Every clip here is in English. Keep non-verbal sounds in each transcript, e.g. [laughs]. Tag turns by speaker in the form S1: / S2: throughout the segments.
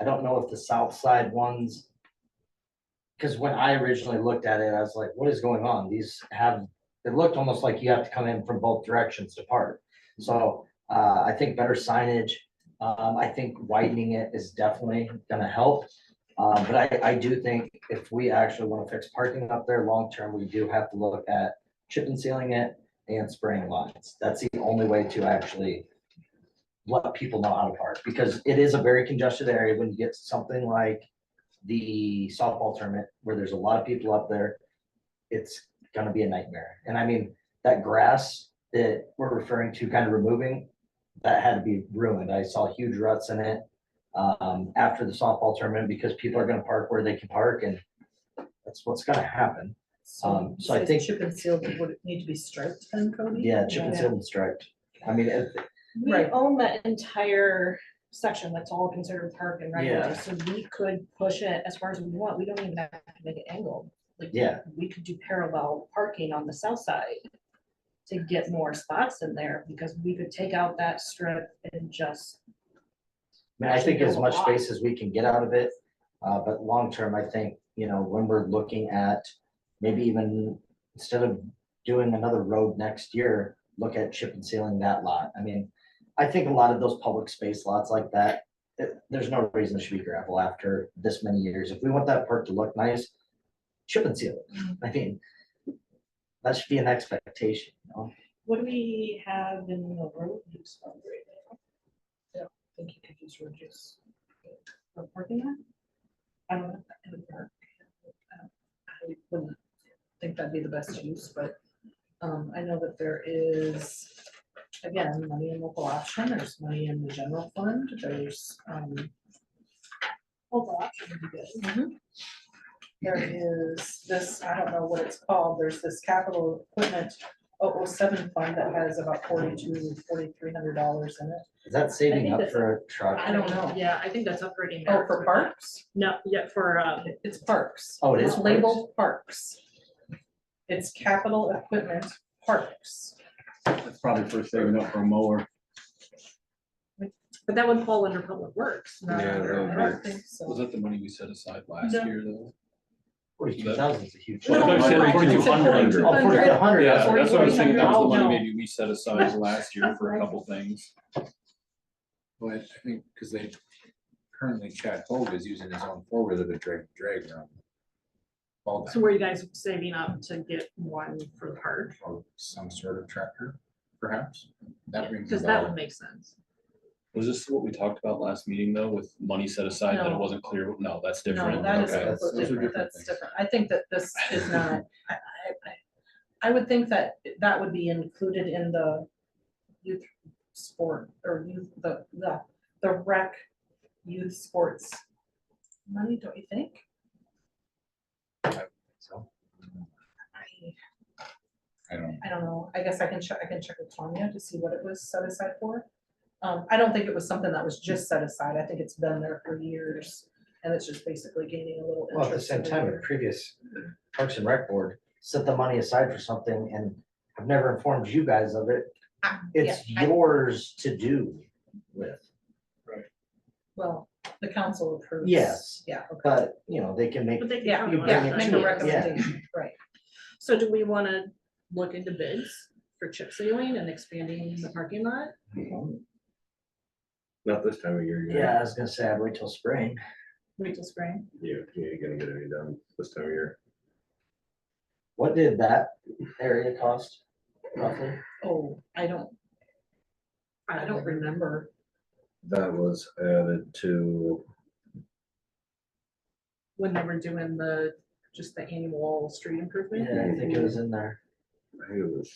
S1: I don't know if the south side ones. Cause when I originally looked at it, I was like, what is going on? These have, it looked almost like you have to come in from both directions to park. So, uh, I think better signage, um, I think widening it is definitely gonna help. Uh, but I, I do think if we actually wanna fix parking up there long-term, we do have to look at chip and sealing it and spraying lines. That's the only way to actually let people know how to park, because it is a very congested area when you get something like the softball tournament, where there's a lot of people up there. It's gonna be a nightmare. And I mean, that grass that we're referring to kind of removing, that had to be ruined. I saw huge ruts in it um, after the softball tournament, because people are gonna park where they can park, and that's what's gonna happen. Um, so I
S2: says
S1: think-
S2: Chip and seal, would it need to be striped then, Cody?
S1: Yeah, chicken
S3: Yeah.
S1: seal and striped. I mean, it-
S3: We
S2: Right.
S3: own that entire section that's all considered park and
S1: Yeah.
S3: regular, so we could push it as far as we want, we don't even have to make it angled. Like,
S1: Yeah.
S3: We could do parallel parking on the south side to get more spots in there, because we could take out that strip and just,
S1: I mean, I think
S3: Actually, there's
S1: as much
S3: a lot.
S1: space as we can get out of it, uh, but long term, I think, you know, when we're looking at maybe even instead of doing another road next year, look at chip and sealing that lot. I mean, I think a lot of those public space lots like that, eh, there's no reason it should be gravel after this many years. If we want that park to look nice, chip and seal it.
S3: Mm-hmm.
S1: I mean, that should be an expectation, you know?
S3: what do we have in the road use fund right now?
S2: I think you could use ridges.
S3: For parking lot? I don't know. if that could work.
S2: I wouldn't think that'd be the best use, but um, I know that there is, again, money in local option, there's money in the general fund, there's um,
S3: Hold on, should be good.
S2: there is this, I don't know what it's called, there's this capital equipment 007 fund that has about forty-two, forty-three hundred dollars in it.
S1: Is that saving
S3: think
S1: up
S3: that's-
S1: for a truck?
S2: I don't know.
S4: Yeah, I think that's operating.
S2: Oh, for parks?
S4: No, yeah, for, um,
S2: It's parks.
S1: Oh, it is
S2: It's labeled parks. It's capital equipment parks.
S5: That's probably for saving up for a mower.
S4: but that would fall under public works.
S2: No,
S6: Yeah, that would
S2: I don't think so.
S5: Was that the money we set aside last
S2: No.
S5: year though?
S1: Forty-two thousand is a huge.
S5: Well,
S1: jump.
S5: I thought you said 4,200.
S1: Oh, 4,200,
S5: Yeah,
S1: that's
S5: that's what I was thinking, that was the
S2: $4,200.
S5: money maybe we
S2: [laughs]
S5: set aside last year for a couple things. But I think, because they, currently Chad Hogue is using his own four wheeler to drag, drag around. All
S4: So were you guys saving up to get one for the park?
S5: or some sort of tractor, perhaps? That rings a
S4: Because that would
S5: bell.
S4: make sense.
S7: Was this what we talked about last meeting though, with money set aside that it
S2: No.
S7: wasn't clear? No, that's
S2: No,
S7: different.
S2: that is
S7: Okay.
S5: that's- those are
S2: completely,
S5: different
S2: that's
S5: things.
S2: different. I think that this is
S7: [laughs]
S2: not, I, I, I, I would think that that would be included in the youth sport or youth, the, the, the rec youth sports money, don't you think?
S5: So,
S2: I,
S5: I don't,
S2: I don't know. I guess I can check, I can check with Tanya to see what it was set aside for. Um, I don't think it was something that was just set aside. I think it's been there for years and it's just basically gaining a little
S1: Well,
S2: interest.
S1: at the same time,
S2: every
S1: the
S2: year.
S1: previous Parks and Rec Board set the money aside for something and I've never informed you guys of it.
S2: I-
S1: It's
S2: yeah, I-
S1: yours to do with,
S2: Well, the council approves.
S1: Yes.
S2: Yeah, okay.
S1: but, you know, they can make,
S4: But they
S2: Yeah,
S4: can. do
S1: bring
S2: Yeah,
S1: it
S4: it.
S2: make
S1: to
S2: a
S1: us, yeah.
S2: recommendation, right.
S4: So do we want to look into bids for chip sealing and expanding the parking lot?
S6: Not this time of year. you're
S1: yeah, I
S6: gonna-
S1: was gonna say, I'd wait till spring.
S4: Wait till spring.
S6: You, you ain't gonna get any done this time of year.
S1: What did that area cost roughly?
S2: Oh, I don't, I don't remember.
S6: That was added to,
S4: When they were doing the, just the annual street improvement.
S1: Yeah, I think it was in there,
S6: I think it was.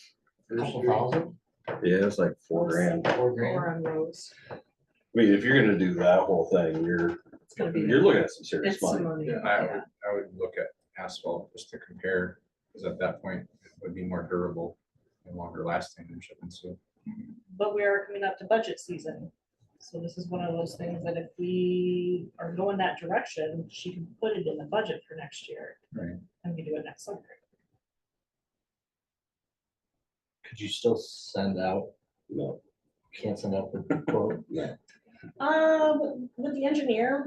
S1: a
S6: first
S1: couple
S6: year.
S1: thousand,
S6: Yeah, it's like four grand. I
S1: four grand.
S2: on Rose.
S6: mean, if you're gonna do that whole thing, you're,
S2: It's gonna be,
S6: you're looking at some
S2: it's
S6: serious
S2: some
S6: money.
S2: money.
S5: yeah, I would, I would look at asphalt just to compare, because at that point, it would be more durable and longer lasting than chip and seal.
S3: but we are coming up to budget season. So this is one of those things that if we are going that direction, she can put it in the budget for next year.
S5: Right.
S3: And we do it next summer.
S1: Could you still send out,
S6: No,
S1: can't send out the quote?
S6: no.
S3: Um, with the engineer,